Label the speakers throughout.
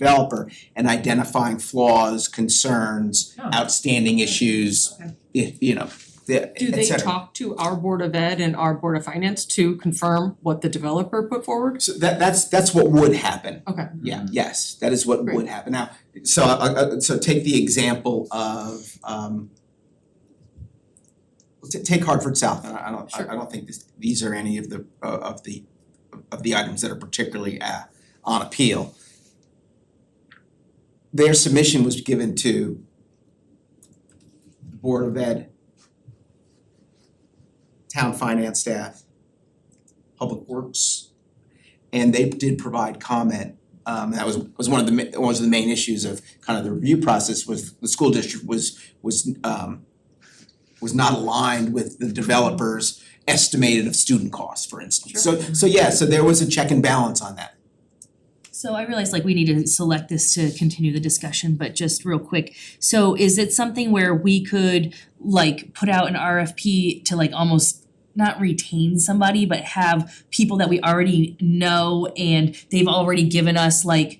Speaker 1: developer and identifying flaws, concerns,
Speaker 2: Oh.
Speaker 1: outstanding issues,
Speaker 2: Okay.
Speaker 1: if, you know, the, et
Speaker 2: Do they
Speaker 1: cetera.
Speaker 2: talk to our Board of Ed and our Board of Finance to confirm what the developer put forward?
Speaker 1: So that that's that's what would happen.
Speaker 2: Okay.
Speaker 1: Yeah, yes, that is what would
Speaker 2: Great.
Speaker 1: happen. Now, so I I- so take the example of um t- take Hartford South, and I I don't, I I
Speaker 2: Sure.
Speaker 1: don't think this, these are any of the uh of the of the items that are particularly uh on appeal. Their submission was given to the Board of Ed, town finance staff, public works, and they did provide comment. Um that was was one of the ma- was the main issues of kind of the review process was the school district was was um was not aligned with the developer's estimated of student costs, for instance. So so yeah, so there was a check and balance on that.
Speaker 3: So I realize like we need to select this to continue the discussion, but just real quick. So is it something where we could like put out an RFP to like almost not retain somebody, but have people that we already know and they've already given us like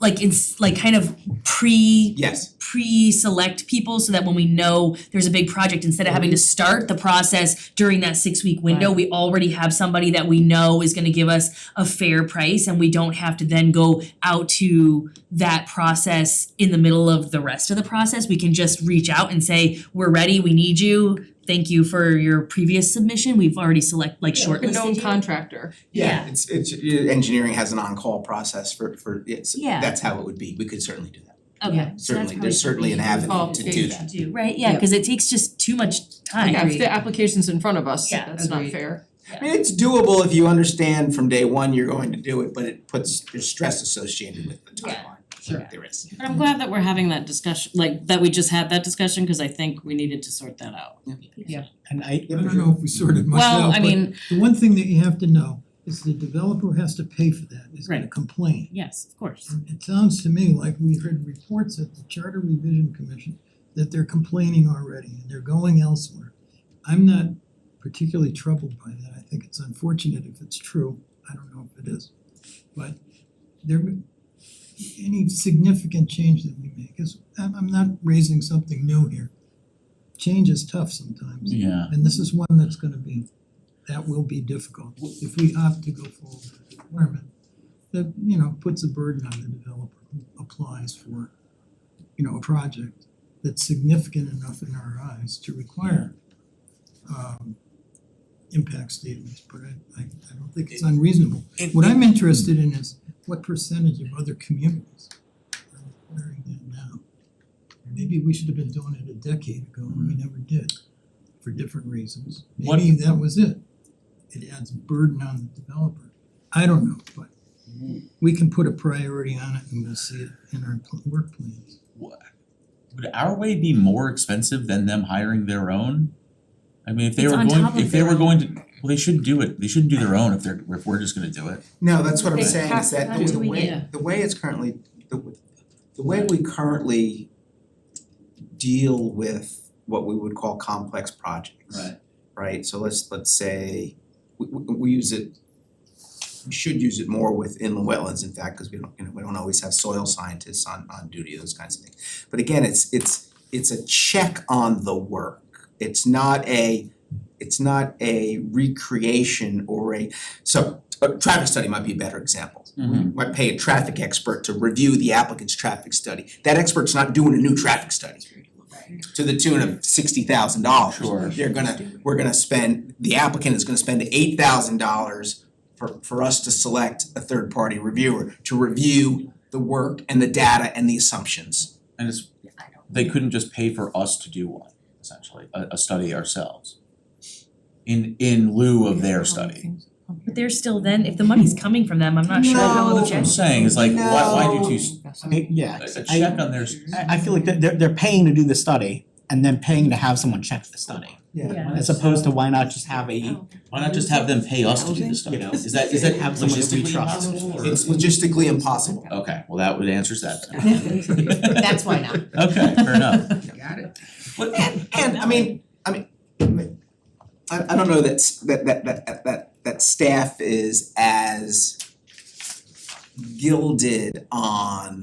Speaker 3: like it's like kind of pre
Speaker 1: Yes,
Speaker 3: pre-select people so that when we know there's a big project, instead of having to start the process during that six-week window, we already have somebody that we know is gonna give us a fair price and we don't have to then go out to that process in the middle of the rest of the process. We can just reach out and say, we're ready, we need you. Thank you for your previous submission. We've already select, like
Speaker 2: Like a
Speaker 3: shortlisted
Speaker 2: known
Speaker 3: you."
Speaker 2: contractor.
Speaker 1: yeah,
Speaker 3: Yeah.
Speaker 1: it's it's uh, engineering has an on-call process for for it's
Speaker 3: Yeah.
Speaker 1: that's how it would be. We could certainly do that.
Speaker 3: Okay. so that's
Speaker 1: Certainly, there's certainly
Speaker 3: probably
Speaker 1: an
Speaker 3: something
Speaker 1: avenue to do
Speaker 2: Qualification.
Speaker 1: that.
Speaker 3: we should do, Right, yeah, cause it takes just too much time.
Speaker 2: Yeah, if the application's in front of us,
Speaker 3: Yeah,
Speaker 2: that's not
Speaker 3: agreed.
Speaker 2: fair.
Speaker 1: I mean, it's doable if you understand from day one you're going to do it, but it puts, there's stress associated with the
Speaker 3: Yeah.
Speaker 1: timeline,
Speaker 4: Sure.
Speaker 1: there is.
Speaker 4: But I'm glad that we're having that discussion, like that we just had that discussion, cause I think we needed to sort that out.
Speaker 5: And I,
Speaker 1: Yeah,
Speaker 6: I
Speaker 1: but
Speaker 6: don't know if we sorted much out,
Speaker 4: Well, I
Speaker 6: but
Speaker 4: mean,
Speaker 6: the one thing that you have to know is the developer has to pay for that, is gonna
Speaker 4: Right.
Speaker 6: complain.
Speaker 4: yes, of course.
Speaker 6: It sounds to me like we heard reports at the Charter Revision Commission that they're complaining already and they're going elsewhere. I'm not particularly troubled by that, I think it's unfortunate if it's true, I don't know if it is. But there, any significant change that we make is, I'm I'm not raising something new here. Change is tough sometimes.
Speaker 7: Yeah,
Speaker 6: And this is one that's gonna be, that will be difficult if we opt to go forward with the requirement. That, you know, puts a burden on the developer who applies for, you know, a project that's significant enough in our eyes to require um impact statements, but I I I don't think it's unreasonable. What I'm interested in is what percentage of other communities are requiring that now? Maybe we should have been doing it a decade ago and we never did for different reasons.
Speaker 7: What-
Speaker 6: Maybe that was it. It adds burden on the developer. I don't know, but we can put a priority on it and we'll see it in our pl- work plans.
Speaker 7: would our way be more expensive than them hiring their own? I mean, if they
Speaker 3: It's
Speaker 7: were
Speaker 3: on top
Speaker 7: going,
Speaker 3: of
Speaker 7: if they
Speaker 3: their
Speaker 7: were
Speaker 3: own.
Speaker 7: going to, well, they shouldn't do it, they shouldn't do their own if they're, if we're just gonna do it.
Speaker 1: No, that's what I'm
Speaker 2: They
Speaker 1: saying,
Speaker 2: have
Speaker 1: is
Speaker 2: to
Speaker 1: that
Speaker 2: do
Speaker 1: the- the
Speaker 3: it.
Speaker 1: way,
Speaker 4: Yeah.
Speaker 1: the way it's currently, the w- the way we currently deal with what we would call complex projects. right? So let's let's say we we we use it, we should use it more with inland wetlands, in fact, because we don't, you know, we don't always have soil scientists on on duty, those kinds of things. But again, it's it's it's a check on the work. It's not a it's not a recreation or a so a traffic study might be a better example.
Speaker 5: Mm-hmm.
Speaker 7: Mhm.
Speaker 1: Might pay a traffic expert to review the applicant's traffic study. That expert's not doing a new traffic study to the tune of sixty thousand dollars.
Speaker 7: Sure.
Speaker 1: They're gonna, we're gonna spend, the applicant is gonna spend eight thousand dollars for for us to select a third party reviewer to review the work and the data and the assumptions.
Speaker 7: And it's, they couldn't just pay for us to do one, essentially, a a study ourselves. In in lieu of their study.
Speaker 3: But they're still then, if the money's coming from them, I'm not sure how
Speaker 1: No.
Speaker 7: That's what I'm
Speaker 3: objective.
Speaker 7: saying, is like, why why do you, s-
Speaker 5: I mean, yeah,
Speaker 7: a a check
Speaker 5: I
Speaker 7: on their,
Speaker 5: I I feel like they're they're they're paying to do the study and then paying to have someone check the study.
Speaker 3: Yeah.
Speaker 5: As opposed to why not just have a, you
Speaker 7: why not just have them pay us to do the study?
Speaker 5: know,
Speaker 7: Is that, is that
Speaker 5: Have someone that we
Speaker 7: logistically
Speaker 5: trust.
Speaker 7: possible or-
Speaker 1: It's logistically impossible.
Speaker 7: Okay, well, that would answers that.
Speaker 8: That's why not.
Speaker 7: Okay, fair enough.
Speaker 1: Got it.
Speaker 7: What-
Speaker 1: And and I mean, I mean, I I don't know that's that that that that that staff is as gilded on